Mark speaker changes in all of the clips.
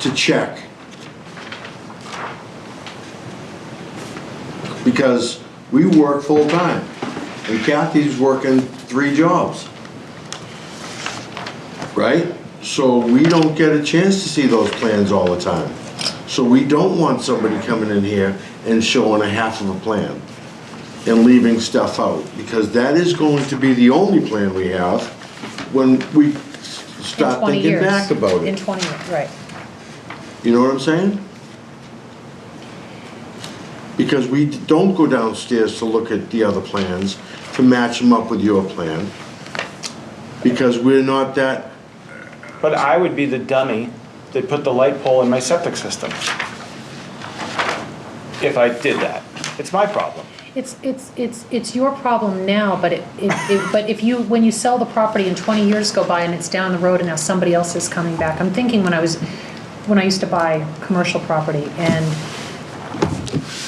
Speaker 1: to check. Because we work full-time, and Kathy's working three jobs. Right? So we don't get a chance to see those plans all the time. So we don't want somebody coming in here and showing a half of a plan and leaving stuff out, because that is going to be the only plan we have when we s-
Speaker 2: in
Speaker 1: start
Speaker 2: 20
Speaker 1: thinking
Speaker 2: years.
Speaker 1: back about
Speaker 2: In
Speaker 1: it.
Speaker 2: 20 years, right.
Speaker 1: You know what I'm saying? Because we d- don't go downstairs to look at the other plans, to match them up with your plan. Because we're not that,
Speaker 3: But I would be the dummy that put the light pole in my septic system. If I did that. It's my problem.
Speaker 2: It's, it's, it's, it's your problem now, but it, it, it- but if you, when you sell the property and 20 years go by and it's down the road and now somebody else is coming back, I'm thinking when I was, when I used to buy commercial property and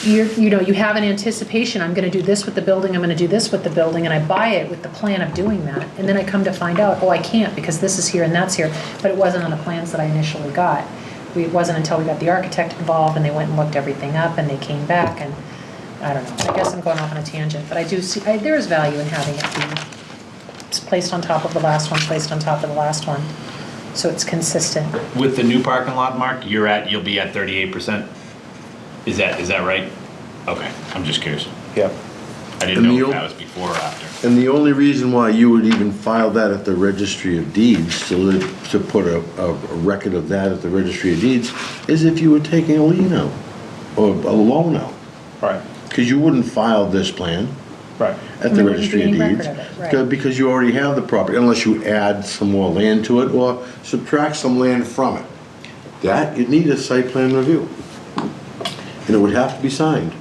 Speaker 2: you're, you know, you have an anticipation, I'm gonna do this with the building, I'm gonna do this with the building, and I buy it with the plan of doing that. And then I come to find out, oh, I can't because this is here and that's here, but it wasn't on the plans that I initially got. We- It wasn't until we got the architect involved and they went and looked everything up and they came back and, I don't know. I guess I'm going off on a tangent, but I do see, I, there is value in having it be it's placed on top of the last one, placed on top of the last one, so it's consistent.
Speaker 4: With the new parking lot, Mark, you're at, you'll be at thirty-eight percent? Is that, is that right? Okay, I'm just curious.
Speaker 3: Yep.
Speaker 4: I didn't
Speaker 1: And
Speaker 4: know
Speaker 1: you'll-
Speaker 4: if that was before or after.
Speaker 1: and the only reason why you would even file that at the registry of deeds, to, li- to put a, a record of that at the registry of deeds, is if you were taking a lien out, or a loan out.
Speaker 3: Right,
Speaker 1: Because you wouldn't file this plan.
Speaker 3: right.
Speaker 1: at
Speaker 2: And
Speaker 1: the
Speaker 2: there wouldn't
Speaker 1: registry of
Speaker 2: be any
Speaker 1: deeds.
Speaker 2: record of it, right.
Speaker 1: because- Because you already have the property, unless you add some more land to it or subtract some land from it. That, you'd need a site plan review. And it would have to be signed.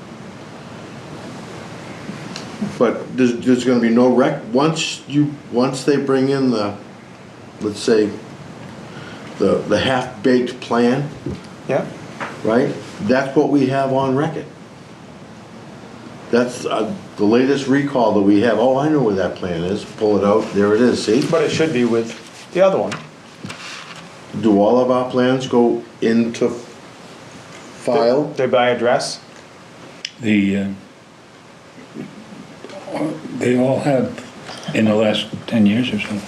Speaker 1: But there's, there's gonna be no rec, once you, once they bring in the, let's say, the, the half-baked plan,
Speaker 3: Yep.
Speaker 1: right? That's what we have on record. That's uh, the latest recall that we have. Oh, I know where that plan is. Pull it out. There it is. See?
Speaker 3: But it should be with the other one.
Speaker 1: Do all of our plans go into file?
Speaker 3: They by address.
Speaker 5: The, uh, they all have in the last 10 years or so.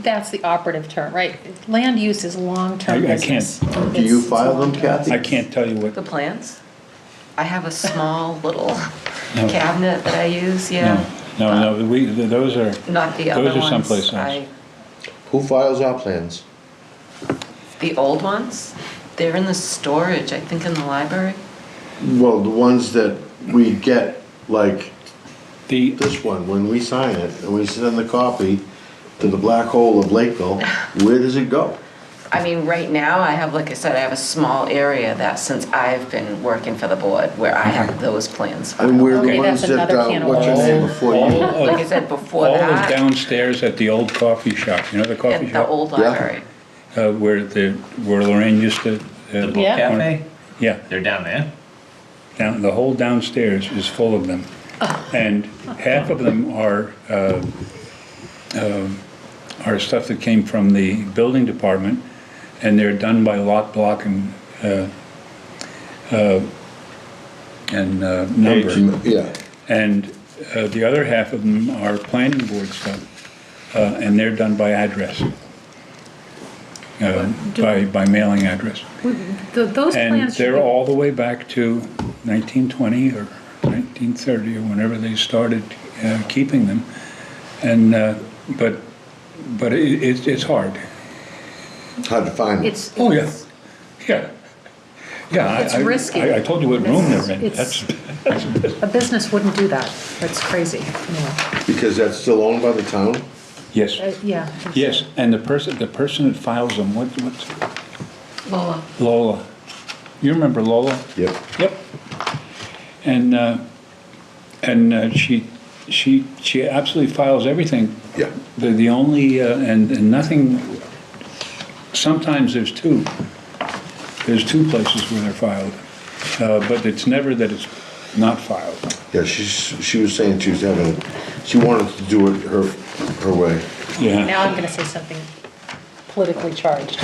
Speaker 2: That's the operative term, right? Land use is long-term
Speaker 5: I- I can't-
Speaker 2: business.
Speaker 1: Do you file them, Kathy?
Speaker 5: I can't tell you
Speaker 6: The
Speaker 5: what,
Speaker 6: plants? I have a small little
Speaker 5: No.
Speaker 6: cabinet that I use,
Speaker 5: no,
Speaker 6: yeah.
Speaker 5: no, no, we, th- those are,
Speaker 6: Not the other
Speaker 5: Those
Speaker 6: ones.
Speaker 5: are someplace else.
Speaker 6: I-
Speaker 1: Who files our plans?
Speaker 6: The old ones, they're in the storage, I think in the library.
Speaker 1: Well, the ones that we get, like
Speaker 5: the,
Speaker 1: this one, when we sign it and we send the copy to the black hole of Lakeville, where does it go?
Speaker 6: I mean, right now, I have, like I said, I have a small area that since I've been working for the board where I have those plans.
Speaker 1: And where the
Speaker 2: Okay,
Speaker 1: ones
Speaker 2: that's
Speaker 1: that,
Speaker 2: another
Speaker 1: uh,
Speaker 2: can of
Speaker 1: what's your
Speaker 2: worms. Oh.
Speaker 1: name before
Speaker 5: all
Speaker 1: you?
Speaker 6: Like I
Speaker 5: of,
Speaker 6: said,
Speaker 5: all
Speaker 6: before
Speaker 5: of
Speaker 6: that,
Speaker 5: downstairs at the old coffee shop, you know the coffee
Speaker 6: at the
Speaker 5: shop?
Speaker 6: old library.
Speaker 5: Uh, Where the, where Lorraine used to.
Speaker 4: The
Speaker 5: uh,
Speaker 4: book cafe,
Speaker 5: Yeah,
Speaker 4: they're down there?
Speaker 5: down, the whole downstairs is full of them. And half of them are, uh, um, are stuff that came from the building department, and they're done by lot, block, and, uh, uh, and uh, number.
Speaker 1: Yeah.
Speaker 5: And uh, the other half of them are planning board stuff, uh, and they're done by address, uh, by, by mailing address.
Speaker 2: Th- Those
Speaker 5: And
Speaker 2: plans should
Speaker 5: they're
Speaker 2: be-
Speaker 5: all the way back to 1920 or 1930 or whenever they started uh, keeping them. And, uh, but, but it- it's, it's hard.
Speaker 1: Hard to find. it.
Speaker 2: It's.
Speaker 5: Oh, yeah.
Speaker 2: it's-
Speaker 5: Yeah. Yeah. I-
Speaker 2: It's
Speaker 5: I-
Speaker 2: risky.
Speaker 5: I I told you what room they're in.
Speaker 2: It's-
Speaker 5: That's,
Speaker 2: A business wouldn't do that. That's crazy. Anyway,
Speaker 1: Because that's still owned by the town?
Speaker 2: uh,
Speaker 5: yes,
Speaker 2: yeah. I think so.
Speaker 5: yes. And the person, the person that files them, what, what's
Speaker 6: Lola.
Speaker 5: Lola? You remember Lola?
Speaker 1: Yep.
Speaker 5: Yep. And, uh, and uh, she, she, she absolutely files everything.
Speaker 1: Yeah.
Speaker 5: The, the only, uh, and, and nothing, sometimes there's two. There's two places where they're filed. Uh, but it's never that it's not filed.
Speaker 1: Yeah, she's, she was saying she was having, she wanted to do it her, her way.
Speaker 5: Yeah.
Speaker 2: Now I'm gonna say something politically charged.